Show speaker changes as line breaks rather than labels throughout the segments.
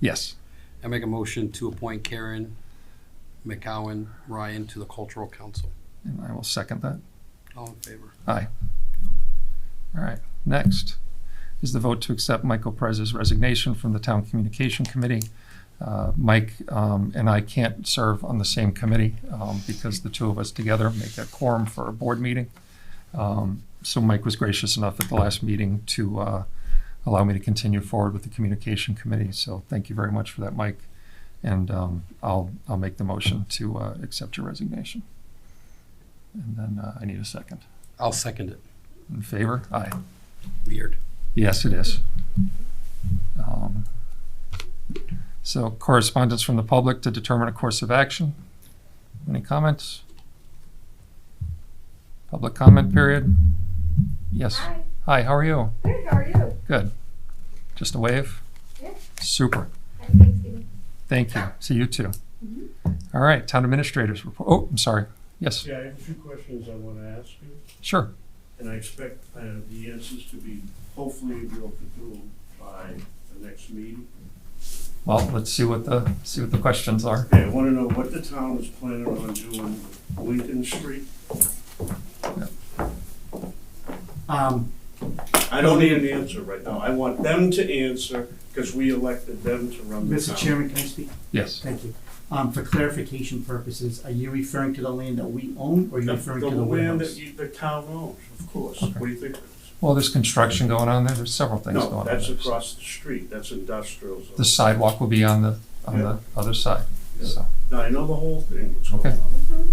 Yes.
I make a motion to appoint Karen McCowan Ryan to the Cultural Council.
And I will second that.
All in favor?
All right. Next is the vote to accept Michael Perez's resignation from the Town Communication Committee. Uh, Mike um, and I can't serve on the same committee um, because the two of us together make a quorum for a board meeting. Um, So Mike was gracious enough at the last meeting to uh, allow me to continue forward with the Communication Committee. So thank you very much for that, Mike. And um, I'll, I'll make the motion to uh, accept your resignation. And then uh, I need a second.
I'll second it.
In favor? Aye.
Weird.
Yes, it is. Um, So correspondence from the public to determine a course of action. Any comments? Public comment period? Yes.
Hi,
Hi, how are you?
good, how are you?
Good. Just a wave?
Yeah.
Super.
Happy Thanksgiving.
Thank you. See you too. All right, town administrators report. Oh, I'm sorry. Yes,
Yeah, I have a few questions I want to ask you,
sure.
and I expect uh, the answers to be hopefully real through by the next meeting.
Well, let's see what the, see what the questions are.
Okay, I want to know what the town is planning on doing with Lincoln Street.
Um,
I don't need an answer right now. I want them to answer because we elected them to run the town.
Mr. Chairman, can I speak?
Yes.
Thank you. Um, for clarification purposes, are you referring to the land that we own, or are you
The
referring to
the
the
land that
warehouse?
you, the town owns, of course. What do you think? it is?
Well, there's construction going on there. There's several things going
No,
on.
that's
there.
across the street. That's industrial
The
zone.
sidewalk will be on the, on the other side, so.
Now, I know the whole thing, what's going
Okay.
on.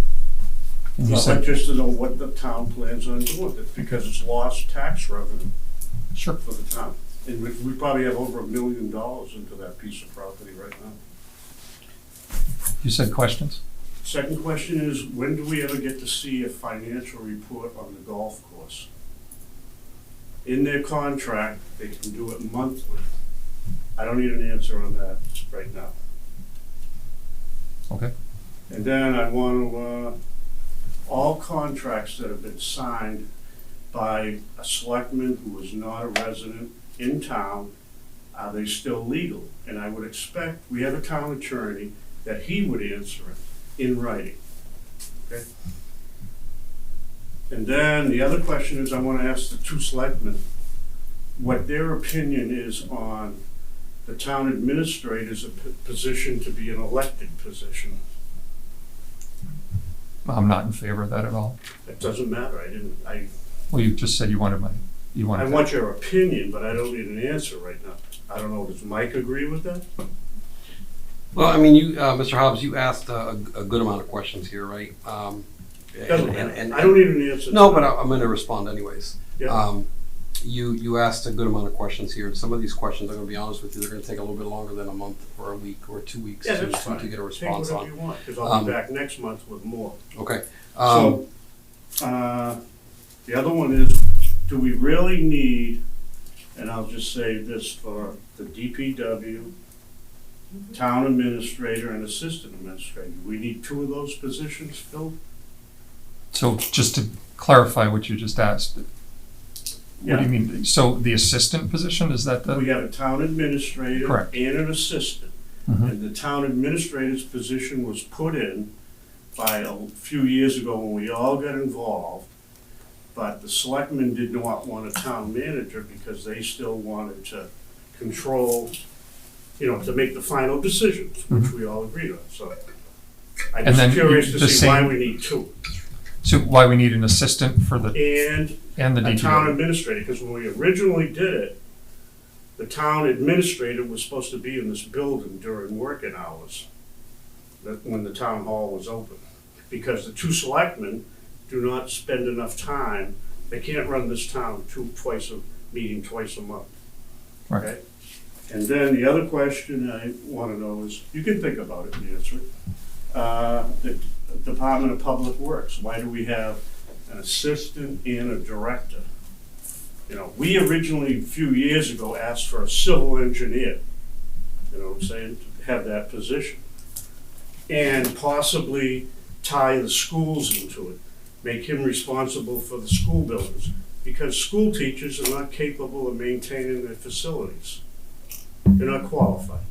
And you
Well, I'd
said,
like just to know what the town plans on doing with it, because it's lost tax revenue
sure,
for the town. And we, we probably have over a million dollars into that piece of property right now.
you said questions?
Second question is, when do we ever get to see a financial report on the golf course? In their contract, they can do it monthly. I don't need an answer on that right now.
Okay.
And then I want to, uh, all contracts that have been signed by a selectman who is not a resident in town, are they still legal? And I would expect, we have a town attorney, that he would answer it in writing. Okay? And then the other question is, I want to ask the two selectmen what their opinion is on the town administrator's p- position to be an elected position.
I'm not in favor of that at all.
It doesn't matter, I didn't, I,
Well, you just said you wanted my, you
I
wanted,
want your opinion, but I don't need an answer right now. I don't know, does Mike agree with that?
Well, I mean, you, uh, Mr. Hobbs, you asked a, a good amount of questions here, right? Um,
Doesn't
and- and-
matter, I don't need an answer.
No, but I- I'm gonna respond anyways.
Yeah.
Um, You, you asked a good amount of questions here. Some of these questions, I'm gonna be honest with you, they're gonna take a little bit longer than a month or a week or two weeks
Yeah,
to
that's
to
fine.
to get a
Take
response
whatever
on.
you want, because I'll be
Um,
back next month with more.
Okay. um,
So, uh, the other one is, do we really need, and I'll just say this for the DPW, town administrator and assistant administrator, we need two of those positions filled?
so just to clarify what you just asked. What do you mean? So the assistant position, is that
We
the,
have a town administrator
Correct.
and an assistant.
Mhm.
And the town administrator's position was put in by a few years ago when we all got involved. But the selectmen did not want a town manager because they still wanted to control, you know, to make the final decisions, which we all agreed on, so. I'm
Mm-hmm. And then
just curious
the
to see why
same-
we need two.
so why we need an assistant for the,
And
and the
a town
DPW?
administrator, because when we originally did it, the town administrator was supposed to be in this building during working hours, that, when the town hall was open. Because the two selectmen do not spend enough time, they can't run this town two, twice a, meeting twice a month.
Right.
Okay? And then the other question I wanna know is, you can think about it and answer it. Uh, the Department of Public Works, why do we have an assistant and a director. You know, we originally, a few years ago, asked for a civil engineer, you know what I'm saying, to have that position. And possibly tie the schools into it, make him responsible for the school buildings, because school teachers are not capable of maintaining their facilities. They're not qualified.